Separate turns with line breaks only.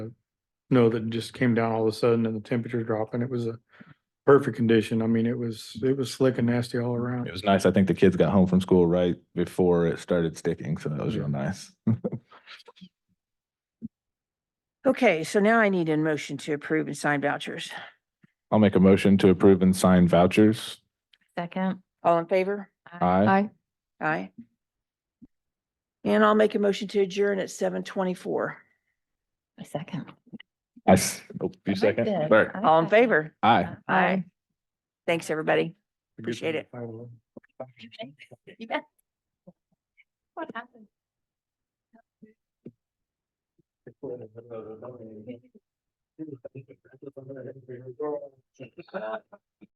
snow that just came down all of a sudden and the temperature dropped and it was a perfect condition. I mean, it was, it was slick and nasty all around.
It was nice. I think the kids got home from school right before it started sticking, so that was real nice.
Okay, so now I need a motion to approve and sign vouchers.
I'll make a motion to approve and sign vouchers.
Second.
All in favor?
Aye.
Aye. And I'll make a motion to adjourn at seven twenty-four.
A second.
I, s- oh, you second? Sorry.
All in favor?
Aye.
Aye.
Thanks, everybody.
The good
Appreciate
thing
it.
about 511.
You bet. What happened?